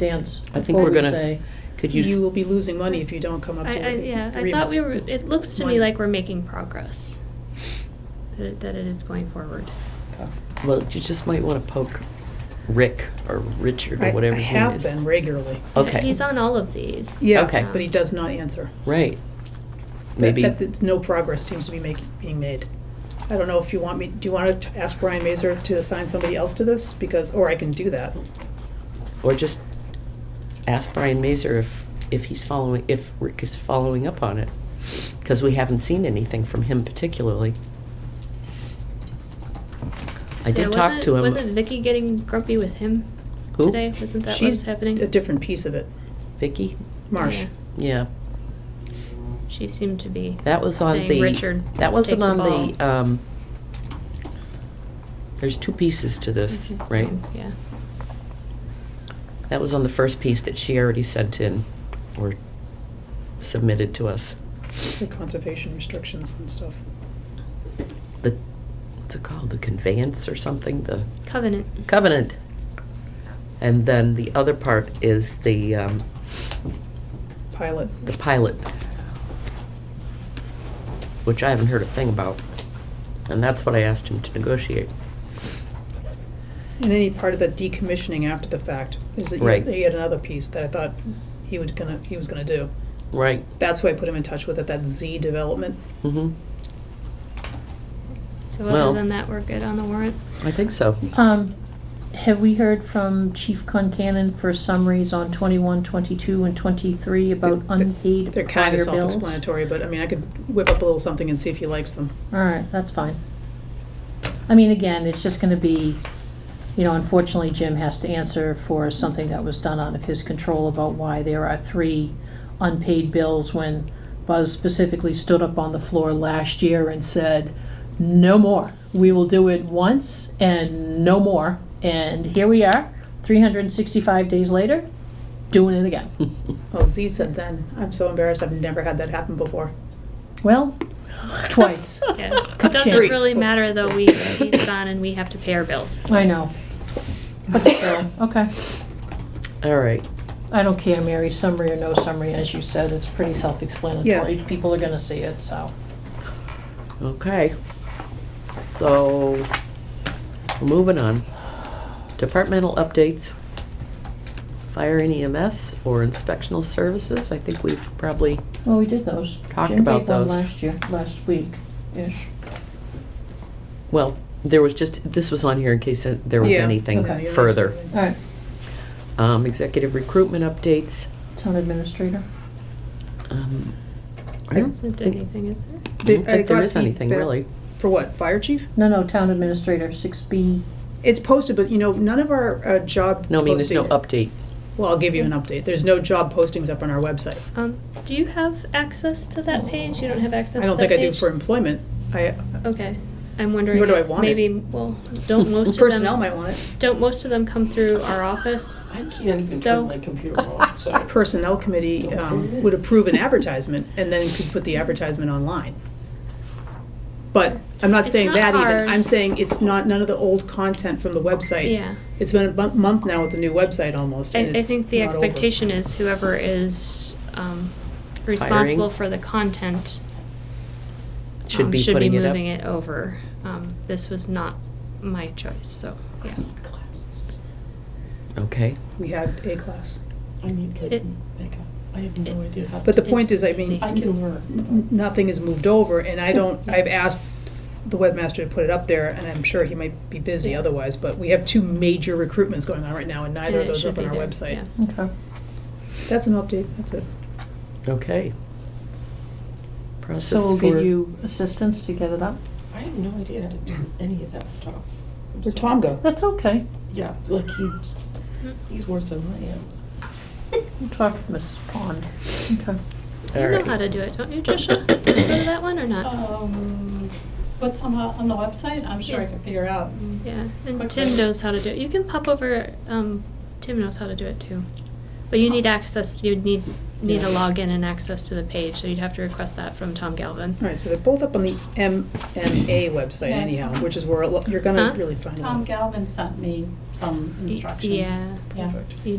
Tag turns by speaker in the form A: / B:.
A: dance
B: I think
A: before
B: we're
A: we
B: gonna-
A: say.
B: Could you,
C: You
B: s-
C: will be losing money if you don't come up
D: I,
C: to
D: I,
C: an
D: yeah, I
C: agreement.
D: thought we were,
C: It's
D: it looks to me
C: money.
D: like we're making progress, that it, that it is going forward.
B: well, you just might want to poke Rick or Richard
C: I-
B: or whatever
C: I
B: his name
C: have
B: is.
C: been regularly.
B: Okay.
D: He's on all of these. Um,
C: Yeah,
B: Okay.
C: but he does not answer.
B: Right.
C: That-
B: Maybe,
C: that- that no progress seems to be making, being made. I don't know if you want me, do you want to ask Brian Mazur to assign somebody else to this? Because, or I can do that.
B: or just ask Brian Mazur if, if he's following, if Rick is following up on it. Because we haven't seen anything from him particularly. I
D: Yeah,
B: did talk
D: wasn't-
B: to him.
D: Wasn't Vicky getting grumpy with him
B: Who?
D: today? Wasn't that what's happening?
C: She's a different piece of it.
B: Vicky?
C: Marsh.
D: Yeah.
B: Yeah.
D: She seemed to be.
B: That was on
D: saying,
B: the.
D: Richard,
B: That wasn't
D: take
B: on
D: the
B: the,
D: ball."
B: um, there's two pieces to this,
D: Mhm.
B: right?
D: Yeah.
B: That was on the first piece that she already sent in or submitted to us.
C: The conservation restrictions and stuff.
B: The, what's it called? The conveyance or something? The
D: Covenant.
B: covenant. And then the other part is the, um,
C: Pilot.
B: the pilot, which I haven't heard a thing about. And that's what I asked him to negotiate.
C: And any part of the decommissioning after the fact is that you-
B: Right.
C: he had another piece that I thought he was gonna, he was gonna do.
B: Right.
C: That's why I put him in touch with it, that Z development.
B: Mm-hmm.
D: So
B: Well-
D: other than that, we're good on the warrant.
B: I think so.
A: Um, have we heard from Chief Concanon for summaries on 21, 22, and twenty-three about
C: They're-
A: unpaid
C: They're
A: prior
C: kind of
A: bills?
C: self-explanatory, but I mean, I could whip up a little something and see if he likes them.
A: All right, that's fine. I mean, again, it's just gonna be, you know, unfortunately, Jim has to answer for something that was done out of his control about why there are three unpaid bills when Buzz specifically stood up on the floor last year and said, no more. We will do it once and no more. And here we are, three hundred and sixty-five days later, doing it again.
C: Oh, Z said then, I'm so embarrassed, I've never had that happen before.
A: Well, twice.
D: Yeah. It doesn't
A: Ka-ching.
D: really matter though, we, he's gone and we have to pay our bills.
A: I know. But still, okay.
B: All right.
A: I don't care, Mary, summary or no summary, as you said, it's pretty self-explanatory. People are gonna see it, so.
B: Okay. So, moving on. Departmental updates. Fire and EMS or inspectional services. I think we've probably,
A: Well, we did those.
B: Talked Jim about made one those.
A: last
B: last
A: year, last week-ish.
B: well, there was just, this was on here in case there was
C: Yeah,
B: anything
C: okay, you're
B: further.
C: right.
A: All right,
B: Um, executive recruitment updates.
A: town administrator.
B: Um, I don't
D: Isn't
B: think,
D: anything, is
B: I
D: there?
B: don't
C: I
B: think there
C: got
B: is anything
C: feedback.
B: really.
C: For what, fire chief?
A: No, no, town administrator, six B.
C: It's posted, but you know, none of our uh, job
B: No, I mean, there's no
C: postings-
B: update.
C: Well, I'll give you an update. There's no job postings up on our website.
D: Um, do you have access to that page? You don't have access to
C: I
D: that
C: don't think I do
D: page?
C: for employment. I,
D: Okay, I'm wondering.
C: Nor do I
D: if
C: want it.
D: Maybe, well, don't most of them.
C: personnel might want it.
D: Don't most of them come through our office?
E: I can't even
D: Though-
E: turn my computer on, so.
C: Personnel committee um, would approve an advertisement and then could put the advertisement online. But I'm not
D: It's
C: saying
D: not
C: that
D: hard.
C: even. I'm saying it's not, none of the old content from the website.
D: Yeah.
C: It's been a bu- month now with the new website almost,
D: I,
C: and
D: I
C: it's
D: think the
C: not over.
D: expectation is whoever is, um, responsible for the content.
B: Should
D: um,
B: be putting it
D: Should be
B: up.
D: moving it over. Um, this was not my choice, so, yeah.
B: Okay.
C: We had a class.
E: I need
D: It-
E: good makeup. I have no idea how.
C: But the point
D: It's
C: is, I mean,
D: easy.
E: I can learn.
C: n- nothing is moved over, and I don't, I've asked the webmaster to put it up there, and I'm sure he might be busy
D: Yeah.
C: otherwise, but we have two major recruitments going on right now, and neither
D: And
C: of
D: it
C: those are up
D: should
C: on
D: be
C: our
D: there,
C: website.
D: yeah.
A: Okay.
C: That's an update, that's it.
B: Okay.
A: So
B: Process
A: we'll
B: for-
A: give you assistance to get it up?
E: I have no idea how to do any of that stuff. I'm
C: Where'd
E: sorry.
C: Tom go?
A: That's okay.
E: Yeah, it's like he's, he's worse than I am.
A: We'll talk to Mrs. Pond. Okay.
D: You know
B: Alright.
D: how to do it, don't you, Tricia? Go to that one or not?
F: Um, but somehow on the website, I'm sure I can figure out.
A: Mm.
D: Yeah, and
F: Quickly.
D: Tim knows how to do it. You can pop over, um, Tim knows how to do it too. But you need access, you'd need, need a
E: Yeah.
D: login and access to the page, so you'd have to request that from Tom Galvin.
C: All right, so they're both up on the MMA website
F: Yeah,
C: anyhow,
F: Tom.
C: which is where a lo- you're gonna
D: Huh?
C: really find
F: Tom
C: out.
F: Galvin Um, sent me some
D: Y-
F: instructions.
D: yeah.
F: Yeah.
C: Perfect.
D: You